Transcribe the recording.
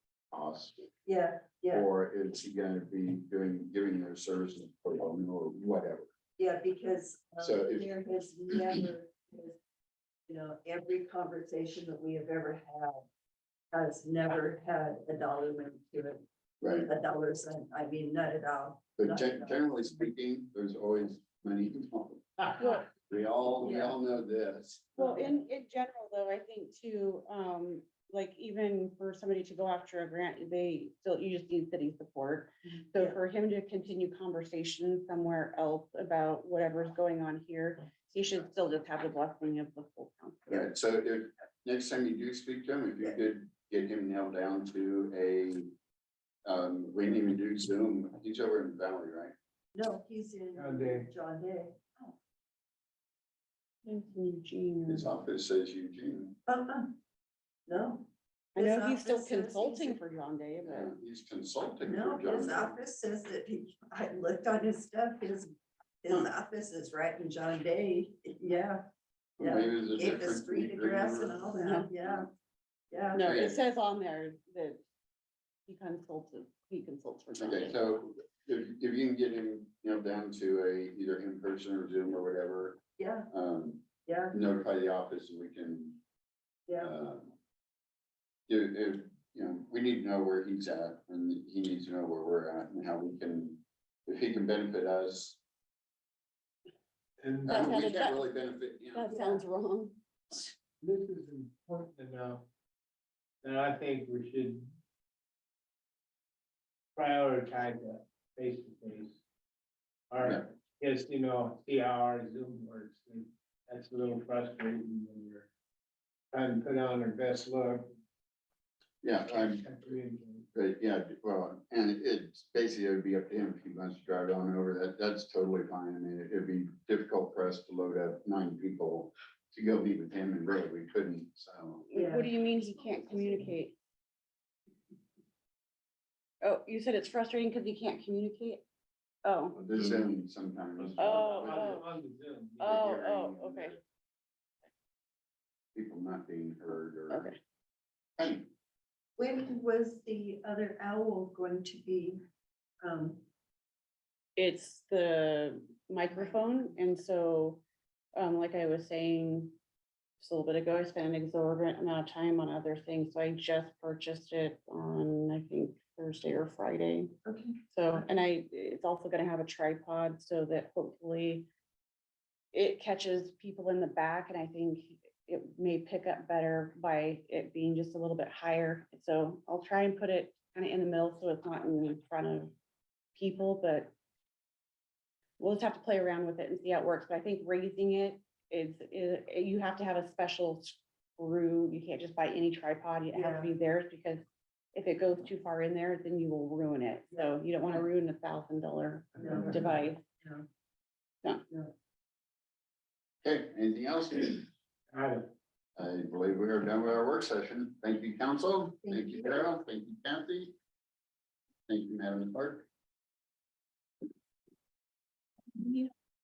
cost? yeah, yeah, Or is he gonna be doing, giving their services for loan or whatever? yeah, because um, So if- there has never, been, you know, every conversation that we have ever had has never had a dollar went to it, Right, a dollar sign, I mean, not at all. but gen- generally speaking, there's always money involved. Well- We all, we all know this. Well, in, in general, though, I think too, um, like even for somebody to go after a grant, they still, you just need city support. So Yeah. for him to continue conversation somewhere else about whatever's going on here, he should still just have the blessing of the full council. Right, so if, next time you do speak to him, if you could get him nailed down to a, um, we didn't even do Zoom, he's over in Valley, right? No, he's in John Day. John Day. His Eugene. Mm-hmm. office says Eugene, Uh-uh. No, I know he's still His office says he's- consulting for John Day, uh, but he's consulting no, for his John. office says that he, I looked on his stuff, his, his office is right in John Day, yeah. Maybe it was a Gave the different street meeting or- address and all that, yeah, yeah. no, Okay. it says on there that he consulted, he consults for John Okay, Day. so if, if you can get him, you know, down to a, either in person or Zoom or whatever, Yeah, um, yeah, notify the office and we can, yeah, uh, do, if, you know, we need to know where he's at and he needs to know where we're at and how we can, if he can benefit us. And I That's mean, how We the- can't really benefit him. That sounds wrong. this is important enough that I think we should prioritize that face to face. Yeah. Or just, you know, see how our Zoom works. and That's a little frustrating when you're trying to put on our best look. Yeah, I'm, and communicate. but yeah, well, and it's basically, it would be up to him if he wants to drive on over that. That's totally fine. I mean, it'd be difficult for us to load up nine people to go meet with him and really we couldn't, so. Yeah. What do you mean he can't communicate? Oh, you said it's frustrating because he can't communicate? Oh, This Zoom sometimes. Oh, On oh. the- on the Zoom. the Oh, hearing oh, and okay. the People not being heard or. okay. Hey, when was the other owl going to be, um, It's the microphone, and so, um, like I was saying just a little bit ago, I spent an exorbitant amount of time on other things, so I just purchased it on, I think, Thursday or Friday. okay, So, and I, it's also gonna have a tripod so that hopefully it catches people in the back and I think it may pick up better by it being just a little bit higher. So I'll try and put it kind of in the middle so it's not in front of people, but we'll just have to play around with it and see how it works. But I think raising it is, is, you have to have a special screw. You can't just buy any tripod. It has to be theirs because if it goes too far in there, then you will ruin it. So you don't want to ruin a thousand dollar no, device. no. Okay, anything else? I don't- I believe we are done with our work session. Thank you, council. Thank Thank you, you. Carol. Thank you, Kathy. Thank you, Madam Clerk.